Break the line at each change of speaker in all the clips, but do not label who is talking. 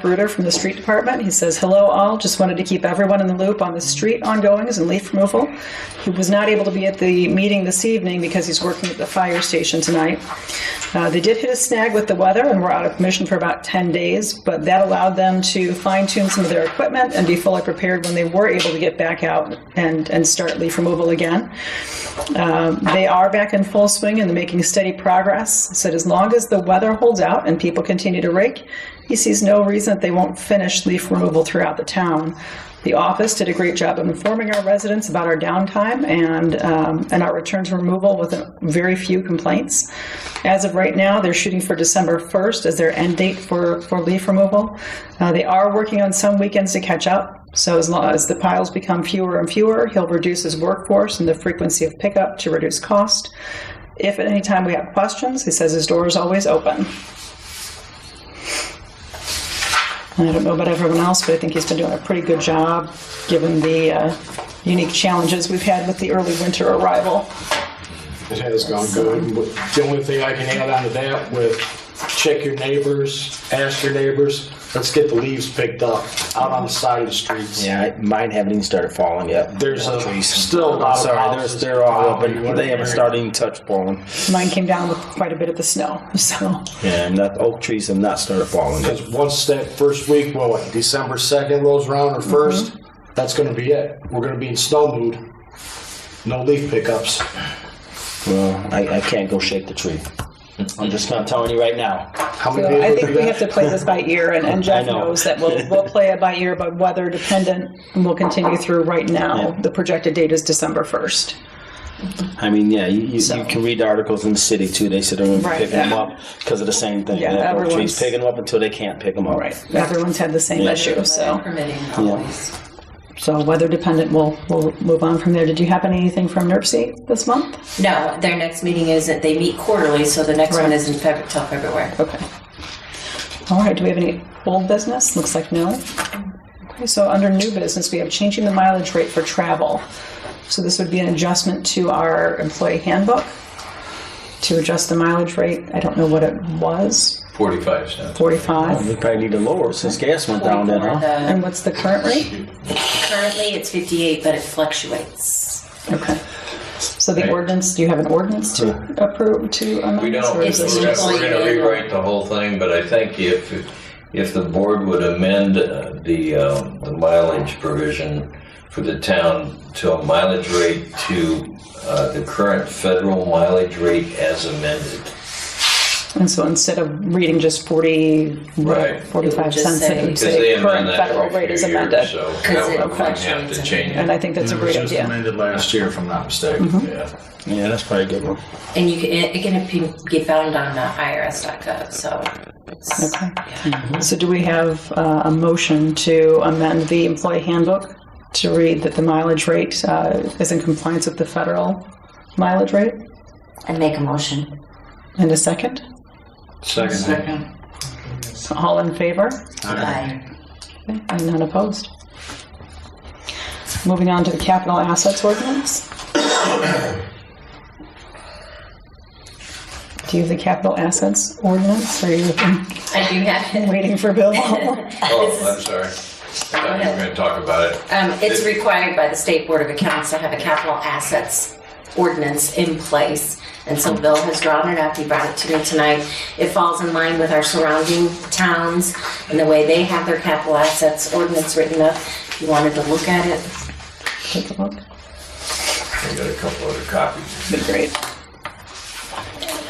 Bruder from the street department. He says, "Hello, all. Just wanted to keep everyone in the loop on the street ongoings and leaf removal. He was not able to be at the meeting this evening because he's working at the fire station tonight. Uh, they did hit a snag with the weather and were out of commission for about 10 days, but that allowed them to fine tune some of their equipment and be fully prepared when they were able to get back out and and start leaf removal again." Um, they are back in full swing and they're making steady progress. He Said as long as the weather holds out and people continue to rake, he sees no reason that they won't finish leaf removal throughout the town. The office did a great job of informing our residents about our downtime and um, and our return to removal with very few complaints. As of right now, they're shooting for December 1st as their end date for for leaf removal. Uh, they are working on some weekends to catch up, so as long as the piles become fewer and fewer, he'll reduce his workforce and the frequency of pickup to reduce cost. If at any time we have questions, he says his door is always open. And I don't know about everyone else, but I think he's been doing a pretty good job, given the uh, unique challenges we've had with the early winter arrival.
It has gone good. The only thing I can add on to that with check your neighbors, ask your neighbors, let's get the leaves picked up out on the side of the streets.
Yeah, I- mine haven't even started falling yet.
There's a, still a lot of
Sorry, they're,
houses.
they're all open.
Wow.
They haven't started even touch falling.
Mine came down with quite a bit of the snow, so
Yeah, and that oak trees have not started falling yet.
Because once that first week, well, what, December 2nd rolls around or
Mm-hmm.
1st, that's going to be it. We're going to be in snow mood. No leaf pickups.
Well, I, I can't go shake the tree. I'm just not telling you right now.
How many
So
days
I
will
think
do
we
that?
have to play this by ear, and, and Jeff
I know.
knows that we'll, we'll play it by ear, but weather dependent, and we'll continue through right now.
Yeah.
The projected date is December 1st.
I mean, yeah, you, you, you can read the articles in the city too. They said they're going to be
Right,
picking
yeah.
them up because of the same thing.
Yeah,
They have oak
everyone's-
trees picking them up until they can't pick them up.
Everyone's had the same
Yeah.
issue, so,
Permitting always.
so weather dependent, we'll, we'll move on from there. Did you happen anything from NERC this month?
No, their next meeting isn't, they meet quarterly, so the next
Right.
one is in February, till February.
Okay. All right, do we have any old business? Looks like no. Okay, so under new business, we have changing the mileage rate for travel. So this would be an adjustment to our employee handbook to adjust the mileage rate. I don't know what it was,
45 cents.
45?
We probably need to lower since gas went down. Then,
Or
huh?
the-
And what's the current rate?
Currently, it's 58, but it fluctuates.
Okay. So the
Right.
ordinance, do you have an ordinance to approve to amend?
We don't,
or
we're
is this
It's
gonna-
just-
we're gonna
employee.
rewrite the whole thing, but I think if, if the board would amend uh, the, um, the mileage provision for the town to a mileage rate to, uh, the current federal mileage rate as amended.
And so instead of reading just 40,
Right.
45
It would just
cents, it
say-
would
Because they
say current
amend that
federal
every
rate is
few years,
amended.
so
Because it
that would have
fluctuates.
to change
And
it.
I think that's a
It was
great
just
idea.
amended last year, if I'm not mistaken.
Mm-hmm.
Yeah.
Yeah, that's probably a good one.
And you can, it it can be- be found on uh, IRS.gov, so. it's-
Okay. So do we have uh, a motion to amend the employee handbook to read that the mileage rate uh, is in compliance with the federal mileage rate?
And make a motion.
And a second?
Second.
All in favor?
Aye.
Okay, And none opposed? Moving on to the capital assets ordinance. Do you have the capital assets ordinance? Are you
I do have it.
waiting for Bill?
Oh, I'm sorry. I thought you were gonna talk about it.
Um, it's required by the State Board of Accounts to have a capital assets ordinance in place. And so Bill has drawn it up, he brought it to me tonight. It falls in line with our surrounding towns and the way they have their capital assets ordinance written up. If you wanted to look at it,
Take a look.
I got a couple other copies.
Be great.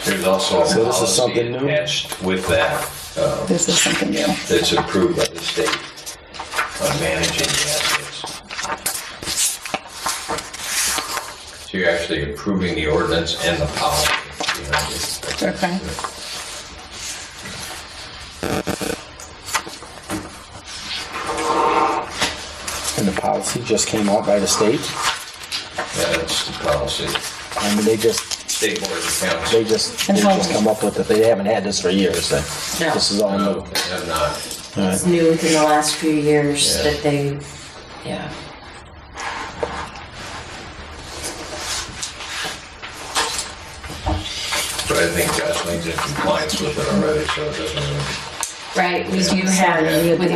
There's also a
So this is
policy
something new?
attached with that, uh,
This is something new.
that's approved by the state on managing the assets. So you're actually approving the ordinance and the policy. behind it.
Okay.
And the policy just came out by the state.
Yeah, that's the policy.
I mean, they just
State Board of Accounts.
they just
And
they
how-
just come up with it. They haven't had this for years. So
No.
This is all new.
No, they have not.
All right.
it's new within the last few years
Yeah.
that they, yeah.
But I think Gosling's in compliance with it already, so it doesn't really.
right? We do have, with